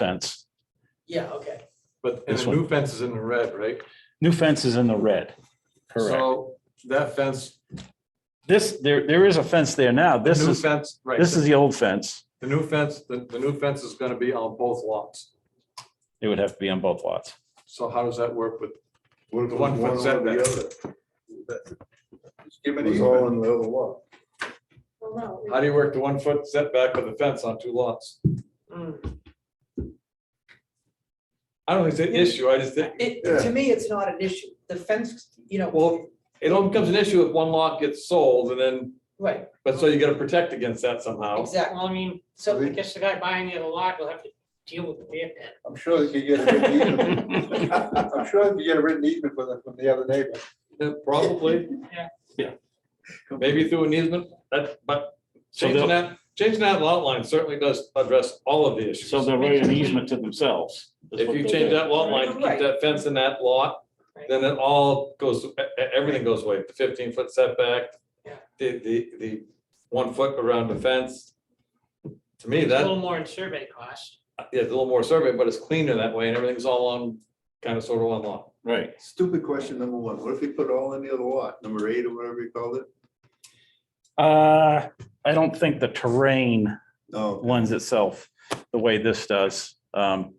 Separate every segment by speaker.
Speaker 1: fence.
Speaker 2: Yeah, okay.
Speaker 3: But, and
Speaker 1: This
Speaker 3: the new fence is in the red, right?
Speaker 1: New fence is in the red. Correct.
Speaker 3: So that fence,
Speaker 1: This, there, there is a fence there now.
Speaker 3: the
Speaker 1: This
Speaker 3: new
Speaker 1: is,
Speaker 3: fence, right,
Speaker 1: this is the old fence.
Speaker 3: the new fence, the, the new fence is gonna be on both lots.
Speaker 1: It would have to be on both lots.
Speaker 3: So how does that work with,
Speaker 4: What if
Speaker 3: The
Speaker 4: it
Speaker 3: one
Speaker 4: was
Speaker 3: foot
Speaker 4: or the other?
Speaker 3: give
Speaker 4: It
Speaker 3: an
Speaker 4: was all
Speaker 3: easement?
Speaker 4: in the other lot.
Speaker 5: Well,
Speaker 3: how
Speaker 5: no,
Speaker 3: do you work the one foot setback of the fence on two lots?
Speaker 5: Mm.
Speaker 3: I don't think it's an issue, I just think,
Speaker 2: It,
Speaker 4: Yeah.
Speaker 2: to me, it's not an issue. The fence, you know,
Speaker 3: Well- it all becomes an issue if one lot gets sold and then,
Speaker 2: right,
Speaker 3: but so you gotta protect against that somehow.
Speaker 2: exactly.
Speaker 6: Well, I mean,
Speaker 2: So
Speaker 6: I guess the guy buying the other lot will have to deal with the beer pit.
Speaker 4: I'm sure they could get a written easement. I'm sure they could get a written easement from the, from the other neighbor.
Speaker 3: Yeah, Probably.
Speaker 6: Yeah.
Speaker 3: Yeah. Maybe through an easement, that, but
Speaker 1: So
Speaker 3: changing
Speaker 1: they'll-
Speaker 3: that, changing that lot line certainly does address all of the issues.
Speaker 1: So they're really an easement to themselves. is
Speaker 3: If
Speaker 1: what
Speaker 3: you
Speaker 1: they
Speaker 3: change
Speaker 1: did,
Speaker 3: that lot
Speaker 1: right?
Speaker 3: line, keep that fence in that lot, then it all goes, e- e- everything goes away, the fifteen foot setback.
Speaker 6: Yeah.
Speaker 3: The, the, the one foot around the fence. To me,
Speaker 6: It's A
Speaker 3: that,
Speaker 6: little more in survey costs.
Speaker 3: yeah, it's a little more survey, but it's cleaner that way and everything's all on, kind of sort of one lot.
Speaker 1: Right.
Speaker 4: Stupid question number one. What if we put all in the other lot, number eight or whatever you called it?
Speaker 1: Uh, I don't think the terrain
Speaker 4: No,
Speaker 1: lends itself the way this does. Um,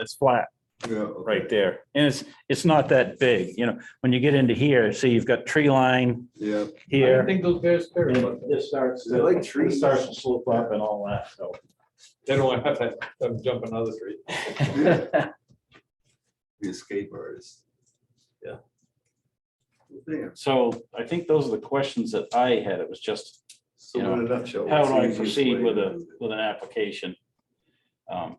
Speaker 1: It's flat
Speaker 4: yeah. okay.
Speaker 1: right there. And it's, it's not that big, you know, when you get into here, see, you've got tree line
Speaker 4: Yeah.
Speaker 3: I
Speaker 1: here.
Speaker 3: think those bears care about
Speaker 1: and
Speaker 3: that.
Speaker 1: This starts,
Speaker 4: They're like
Speaker 1: to-
Speaker 4: trees.
Speaker 1: this starts to slope up and all that, so.
Speaker 3: They don't want to have to, them jump another street.
Speaker 4: Be a escape artist.
Speaker 3: Yeah.
Speaker 4: Damn.
Speaker 1: So I think those are the questions that I had. It was just
Speaker 4: So
Speaker 1: You know,
Speaker 4: in a nutshell,
Speaker 1: how
Speaker 4: what's
Speaker 1: do
Speaker 4: the
Speaker 1: I
Speaker 4: easiest
Speaker 1: proceed
Speaker 4: way
Speaker 1: with
Speaker 4: to
Speaker 1: a,
Speaker 4: do it?
Speaker 1: with an application? Um,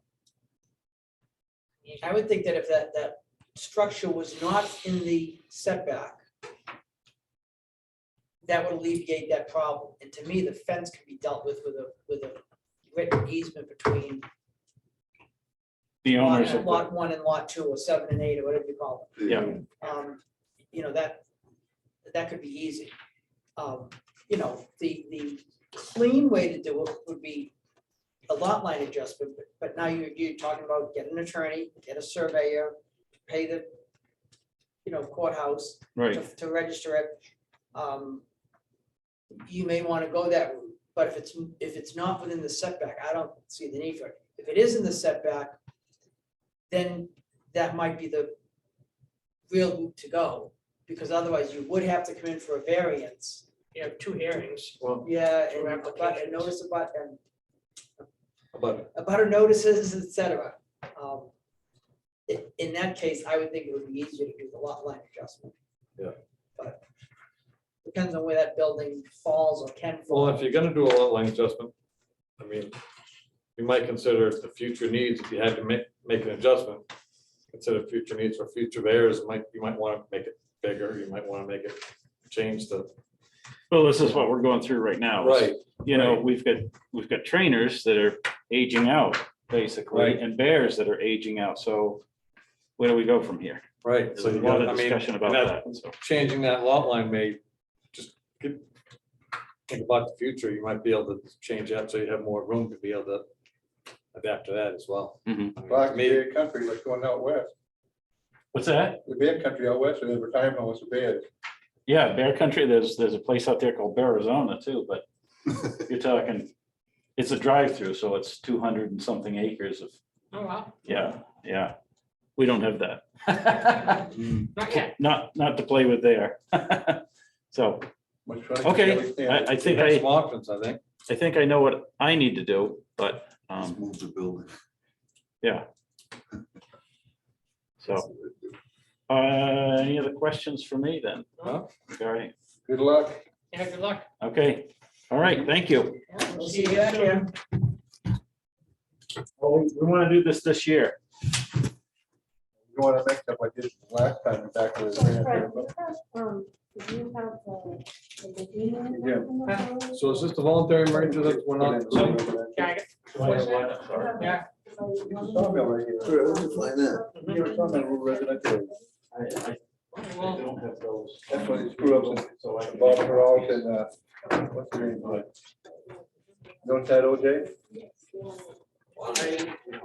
Speaker 2: I would think that if that, that structure was not in the setback, that would alleviate that problem. And to me, the fence can be dealt with with a, with a written easement between
Speaker 1: The
Speaker 2: lot
Speaker 1: owners, of the-
Speaker 2: lot one and lot two, or seven and eight, or whatever you call
Speaker 1: yeah,
Speaker 2: them. Um, You know, that, that could be easy. Um, You know, the, the clean way to do it would be a lot line adjustment, but, but now you're, you're talking about get an attorney, get a surveyor, pay the, you know, courthouse to,
Speaker 1: right.
Speaker 2: to register it. Um, You may want to go that route, but if it's, if it's not within the setback, I don't see the need for it. If it is in the setback, then that might be the real route to go, because otherwise you would have to come in for a variance.
Speaker 6: You have two hearings.
Speaker 3: Well,
Speaker 2: Yeah,
Speaker 6: Two
Speaker 2: and a but- and
Speaker 6: applications.
Speaker 2: notice about, and
Speaker 3: but
Speaker 2: about our notices, et cetera. Um, i- In that case, I would think it would be easier to do the lot line adjustment.
Speaker 3: Yeah.
Speaker 2: But depends on where that building falls or can fall.
Speaker 3: well, if you're gonna do a lot line adjustment, I mean, you might consider the future needs, if you had to make, make an adjustment. Consider future needs for future bears, might, you might wanna make it bigger, you might wanna make it, change the.
Speaker 1: Well, this is what we're going through right now. is, You know, we've got, we've got trainers that are aging out, basically,
Speaker 3: Right.
Speaker 1: and bears that are aging out. So where do we go from here?
Speaker 3: Right.
Speaker 1: There's
Speaker 3: So
Speaker 1: a
Speaker 3: you
Speaker 1: lot
Speaker 3: gotta, I
Speaker 1: of
Speaker 3: mean,
Speaker 1: discussion about
Speaker 3: that,
Speaker 1: that. so.
Speaker 3: changing that lot line may, just get- think about the future, you might be able to change that, so you have more room to be able to adapt to that as well.
Speaker 1: Mhm.
Speaker 3: I mean,
Speaker 4: Black
Speaker 3: Maybe,
Speaker 4: bear country, like going out west,
Speaker 1: What's that?
Speaker 4: the bear country out west, and the retirement home was a bear.
Speaker 1: Yeah, Bear Country, there's, there's a place out there called Bear Arizona too, but you're talking, it's a drive-through, so it's two hundred and something acres of
Speaker 6: Oh, wow.
Speaker 1: Yeah, yeah. We don't have that.
Speaker 6: Not yet.
Speaker 1: Not, not to play with there. So,
Speaker 4: Much fun.
Speaker 1: okay, I, I think
Speaker 3: there's
Speaker 1: I,
Speaker 3: some options, I think.
Speaker 1: I think I know what I need to do, but, um,
Speaker 4: Move the building.
Speaker 1: yeah. So, uh, any other questions for me then?
Speaker 3: No.
Speaker 1: All right,
Speaker 4: Good luck.
Speaker 6: Yeah, good luck.
Speaker 1: okay, all right, thank you.
Speaker 6: Yeah,
Speaker 2: We'll see you back
Speaker 6: soon.
Speaker 2: here.
Speaker 1: Well, Oh, We want to do this this year.
Speaker 4: You want to make up like this last time back to
Speaker 5: so Fred,
Speaker 4: the.
Speaker 5: you have, um, do you have the- the beginning
Speaker 4: Yeah.
Speaker 5: of the-
Speaker 3: So is this the voluntary merger that went on?
Speaker 6: Yeah, I guess. Yeah.
Speaker 4: Sawmill right here. You're a sawmill resident there.
Speaker 6: Well,
Speaker 4: That's why they screw up with uh, Bob Peralta and, uh, what's her name? uh, Don't that OJ?
Speaker 5: Yes, yeah.
Speaker 2: Why?